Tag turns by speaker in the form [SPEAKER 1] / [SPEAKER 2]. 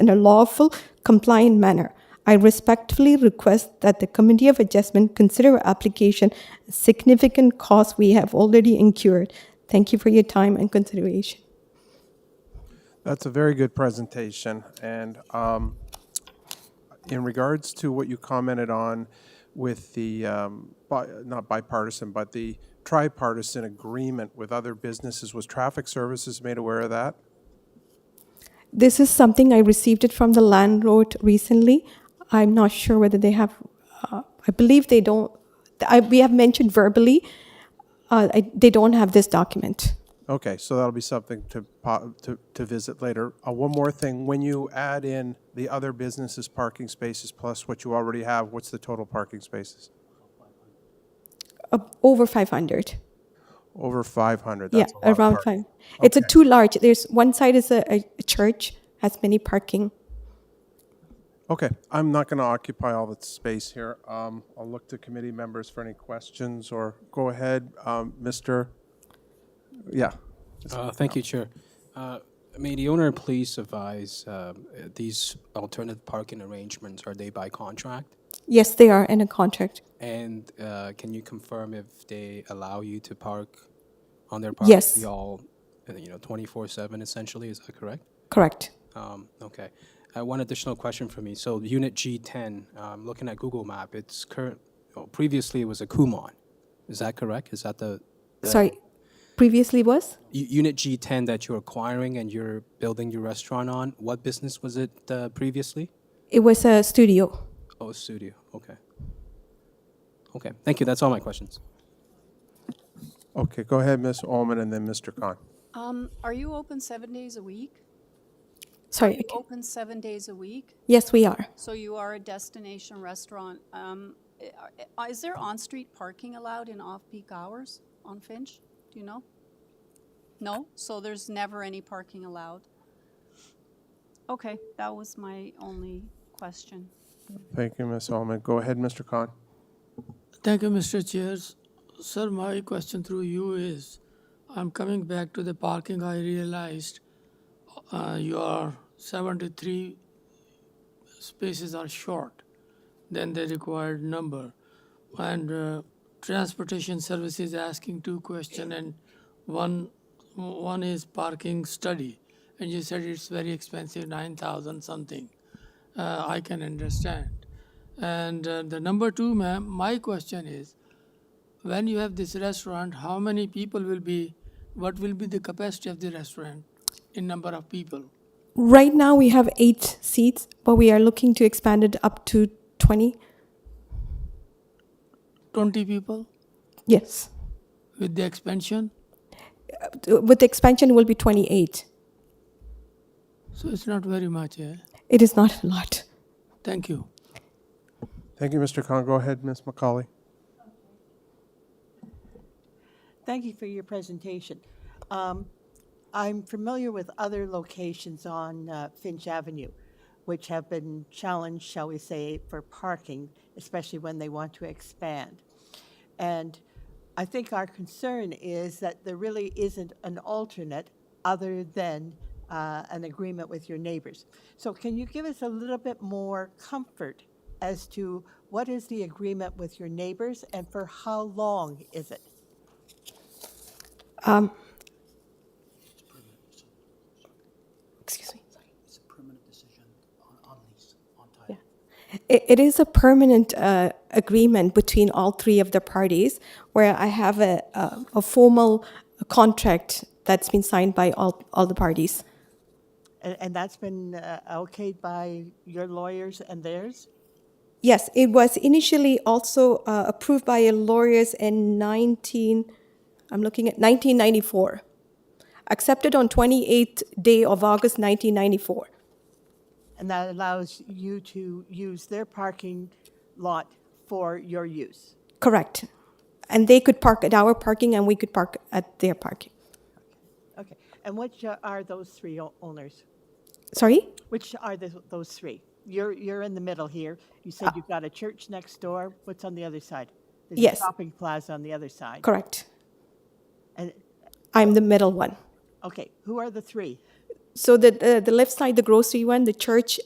[SPEAKER 1] in a lawful, compliant manner. I respectfully request that the Committee of Adjustment consider our application a significant cost we have already incurred. Thank you for your time and consideration.
[SPEAKER 2] That's a very good presentation. And um, in regards to what you commented on with the, um, bi- not bipartisan, but the tripartisan agreement with other businesses, was Traffic Services made aware of that?
[SPEAKER 1] This is something I received it from the landlord recently. I'm not sure whether they have, uh, I believe they don't, I, we have mentioned verbally, uh, I, they don't have this document.
[SPEAKER 2] Okay, so that'll be something to, po- to, to visit later. Uh, one more thing, when you add in the other businesses' parking spaces plus what you already have, what's the total parking spaces?
[SPEAKER 1] Uh, over 500.
[SPEAKER 2] Over 500,
[SPEAKER 1] Yeah,
[SPEAKER 2] that's a lot of
[SPEAKER 1] around
[SPEAKER 2] parking.
[SPEAKER 1] five. It's a too large. There's one side is a, a a church, has many parking.
[SPEAKER 2] Okay, I'm not going to occupy all the space here. Um, I'll look to committee members for any questions, or go ahead, um, Mr., yeah.
[SPEAKER 3] Uh, Thank you, Chair. Uh, May the owner please advise, um, uh, these alternative parking arrangements, are they by contract?
[SPEAKER 1] Yes, they are in a contract.
[SPEAKER 3] And uh, can you confirm if they allow you to park on their
[SPEAKER 1] Yes.
[SPEAKER 3] property all, uh, you know, 24/7 essentially, is that correct?
[SPEAKER 1] Correct.
[SPEAKER 3] Um, Okay. Uh, One additional question for me. So Unit G10, um, looking at Google Map, it's current, oh, previously it was a Kumon. Is that correct? Is that the? the-
[SPEAKER 1] Sorry, previously was?
[SPEAKER 3] U- Unit G10 that you're acquiring and you're building your restaurant on, what business was it uh, previously?
[SPEAKER 1] It was a studio.
[SPEAKER 3] Oh, studio, okay. Okay, thank you, that's all my questions.
[SPEAKER 2] Okay, go ahead, Ms. Ullman, and then Mr. Khan.
[SPEAKER 4] Um, are you open seven days a week?
[SPEAKER 1] Sorry. I can't-
[SPEAKER 4] Open seven days a week?
[SPEAKER 1] Yes, we are.
[SPEAKER 4] So you are a destination restaurant. Um, i- are- is there on-street parking allowed in off-peak hours on Finch? Do you know? No? So there's never any parking allowed? Okay, that was my only question.
[SPEAKER 2] Thank you, Ms. Ullman. Go ahead, Mr. Khan.
[SPEAKER 5] Thank you, Mr. Chairs. Sir, my question through you is, I'm coming back to the parking. I realized uh, your 73 spaces are short than the required number. And uh, transportation services asking two question and one one is parking study. And you said it's very expensive, 9,000 something. Uh, I can understand. And uh, the number two, ma'am, my question is when you have this restaurant, how many people will be, what will be the capacity of the restaurant in number of people?
[SPEAKER 1] Right now, we have eight seats, but we are looking to expand it up to 20.
[SPEAKER 5] 20 people
[SPEAKER 1] Yes.
[SPEAKER 5] with the expansion?
[SPEAKER 1] With the expansion, it will be 28.
[SPEAKER 5] So it's not very much. Eh?
[SPEAKER 1] It is not a lot.
[SPEAKER 5] Thank you.
[SPEAKER 2] Thank you, Mr. Khan. Go ahead, Ms. McCauley.
[SPEAKER 6] Thank you for your presentation. Um, I'm familiar with other locations on uh, Finch Avenue, which have been challenged, shall we say, for parking, especially when they want to expand. And I think our concern is that there really isn't an alternate other than uh, an agreement with your neighbors. So can you give us a little bit more comfort as to what is the agreement with your neighbors and for how long is it?
[SPEAKER 1] Excuse me.
[SPEAKER 7] It's a permanent decision on, on lease, on title.
[SPEAKER 1] It, it is a permanent uh, agreement between all three of the parties where I have a, a, a formal contract that's been signed by all, all the parties.
[SPEAKER 6] And, and that's been uh, okayed by your lawyers and theirs?
[SPEAKER 1] Yes, it was initially also uh, approved by a lawyers in 19, I'm looking at 1994, accepted on 28th day of August 1994.
[SPEAKER 6] And that allows you to use their parking lot for your use?
[SPEAKER 1] Correct. And they could park at our parking and we could park at their parking.
[SPEAKER 6] Okay. And which uh, are those three o- owners?
[SPEAKER 1] Sorry?
[SPEAKER 6] Which are the, those three? You're, you're in the middle here. You said you've got a church next door. What's on the other side? There's
[SPEAKER 1] Yes.
[SPEAKER 6] a shopping plaza on the other side.
[SPEAKER 1] Correct.
[SPEAKER 6] And,
[SPEAKER 1] I'm the middle one.
[SPEAKER 6] okay, who are the three?
[SPEAKER 1] So the, the, the left side, the grocery one, the church